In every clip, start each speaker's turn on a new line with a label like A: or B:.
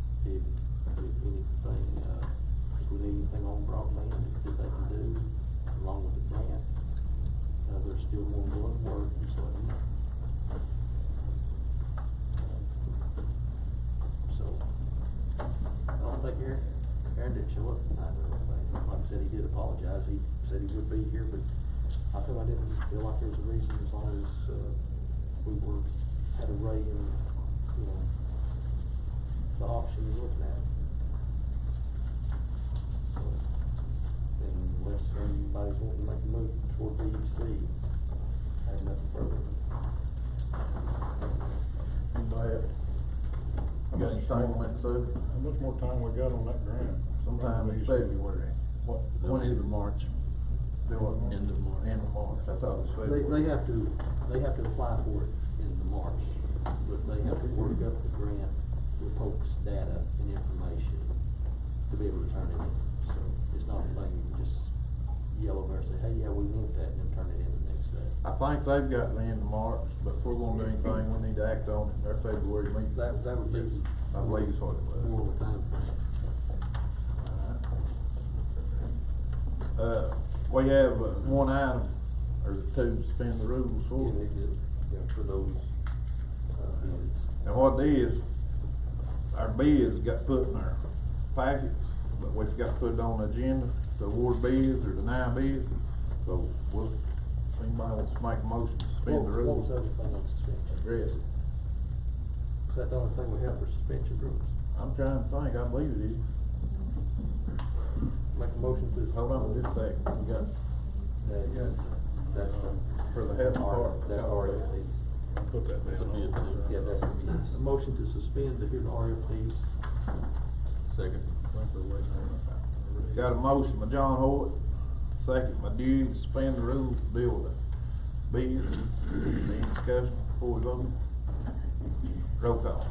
A: uh, broadband that they can do along with the grant. Uh, there's still more work, work, and so. So, I don't think Aaron, Aaron did show up tonight, or anything. like I said, he did apologize, he said he would be here, but I feel I didn't feel like there was a reason, as long as, uh, we were, had a ray and, you know, the option you're looking at. So, Unless anybody's wanting to make a move toward B E C, I have nothing further.
B: Anybody have- You got anything on that, Sue?
C: How much more time we got on that grant?
B: Sometime in February,
C: What?
B: when is it, March? Do it.
D: End of March.
B: End of March, I thought it was
A: They,
B: February.
A: they have to, they have to apply for it in the March, but they have to work up the grant with folks' data and information to be able to turn it in. So it's not like you can just yell over and say, hey, yeah, we want that, and then turn it in the next day.
B: I think they've got the end of March, but if we're gonna do anything, we need to act on it in their February meeting.
A: That, that would be
B: I believe is what it was.
A: more of a time.
B: Uh, we have uh, one item, or the two to suspend the rules for.
A: for those, uh, bids.
B: And what it is, our bids got put in our packets, but we've got put it on the agenda, to award bids or deny bids. So, we'll, if anybody wants to make a motion to
A: What
B: suspend the
A: what was
B: rules,
A: the other thing on suspension?
B: address it.
A: Is that the only thing we have for suspension rules?
B: I'm trying to think, I believe it is.
A: Make a motion to.
B: Hold on just a second, we got, Uh,
A: That's the.
B: for the health department.
A: That's RFPs.
C: Put that down.
A: Yeah, that's the bids. Motion to suspend the hearing RFPs.
D: Second.
B: Got a motion by John Hoyt, second by Dewey, to suspend the rules, to deal with it. Bids, any discussion before we vote? Roll call.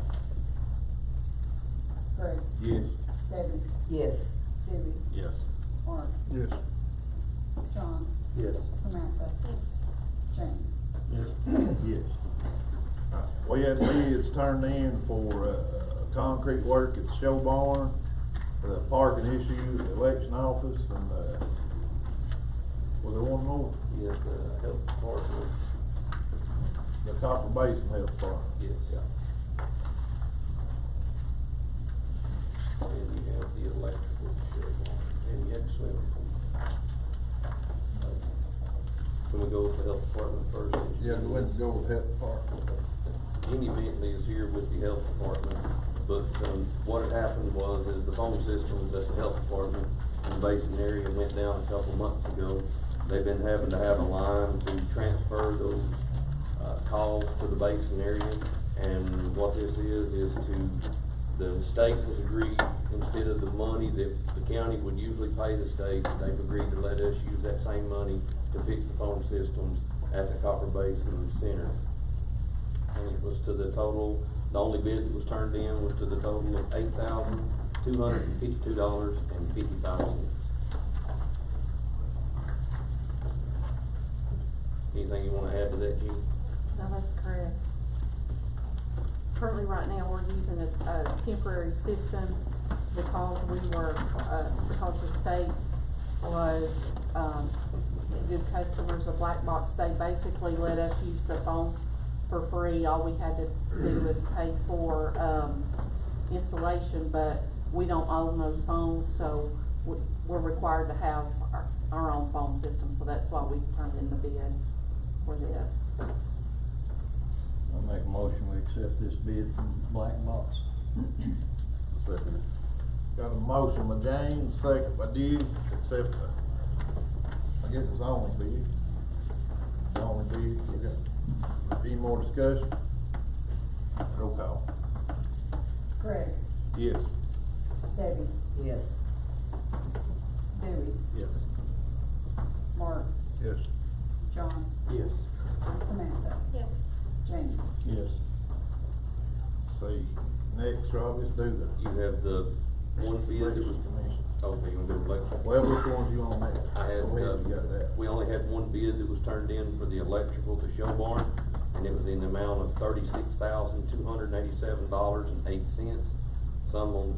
E: Craig,
B: Yes.
E: David,
F: Yes.
E: Dewey,
D: Yes.
E: Mark,
C: Yes.
E: John,
A: Yes.
E: Samantha. James.
A: Yes.
B: We had bids turned in for, uh, concrete work at the show barn, for the parking issue, at the election office, and, uh, was there one more?
A: Yes, uh, the health department.
B: The Copper Basin Health Park.
A: Yes. And you have the electrical, and you have the swimming pool. Can we go with the health department first?
B: Yeah, we went to go with Health Park.
G: Kenny Bentley is here with the health department, but, um, what had happened was, is the phone systems at the health department in the Basin area went down a couple months ago. They've been having to have a line to transfer those, uh, calls to the Basin area. And what this is, is to, the state has agreed, instead of the money that the county would usually pay the state, they've agreed to let us use that same money to fix the phone systems at the Copper Basin Center and it was to the total, the only bid that was turned in was to the total of eight thousand, two hundred and fifty-two dollars and fifty-five cents. Anything you wanna add to that, Jim?
H: No, that's correct. Currently, right now, we're using a, a temporary system because we were, uh, because the state was, um, good customers of Black Box, they basically let us use the phone for free. All we had to do was pay for, um, installation, but we don't own those phones, so we, we're required to have our, our own phone system, so that's why we turned in the bid for this.
D: I make a motion, we accept this bid from Black Box. Second it.
B: Got a motion by James, second by Dewey, except, uh, I guess it's only bid. It's Only bid, we got, any more discussion? Roll call.
E: Craig,
B: Yes.
E: Debbie,
F: Yes.
E: Dewey,
D: Yes.
E: Mark,
B: Yes.
E: John,
A: Yes.
E: Samantha. Yes. James.
D: Yes.
B: See, next, Rob, let's do the.
G: You have the one bid that was, oh,
B: Elections Commission.
G: okay, you wanna do electrical?
B: Well, which ones you on next?
G: I had,
B: Go ahead,
G: um,
B: you got that.
G: we only had one bid that was turned in for the electrical to show barn, and it was in the amount of thirty-six thousand, two hundred and eighty-seven dollars and eight cents. Some on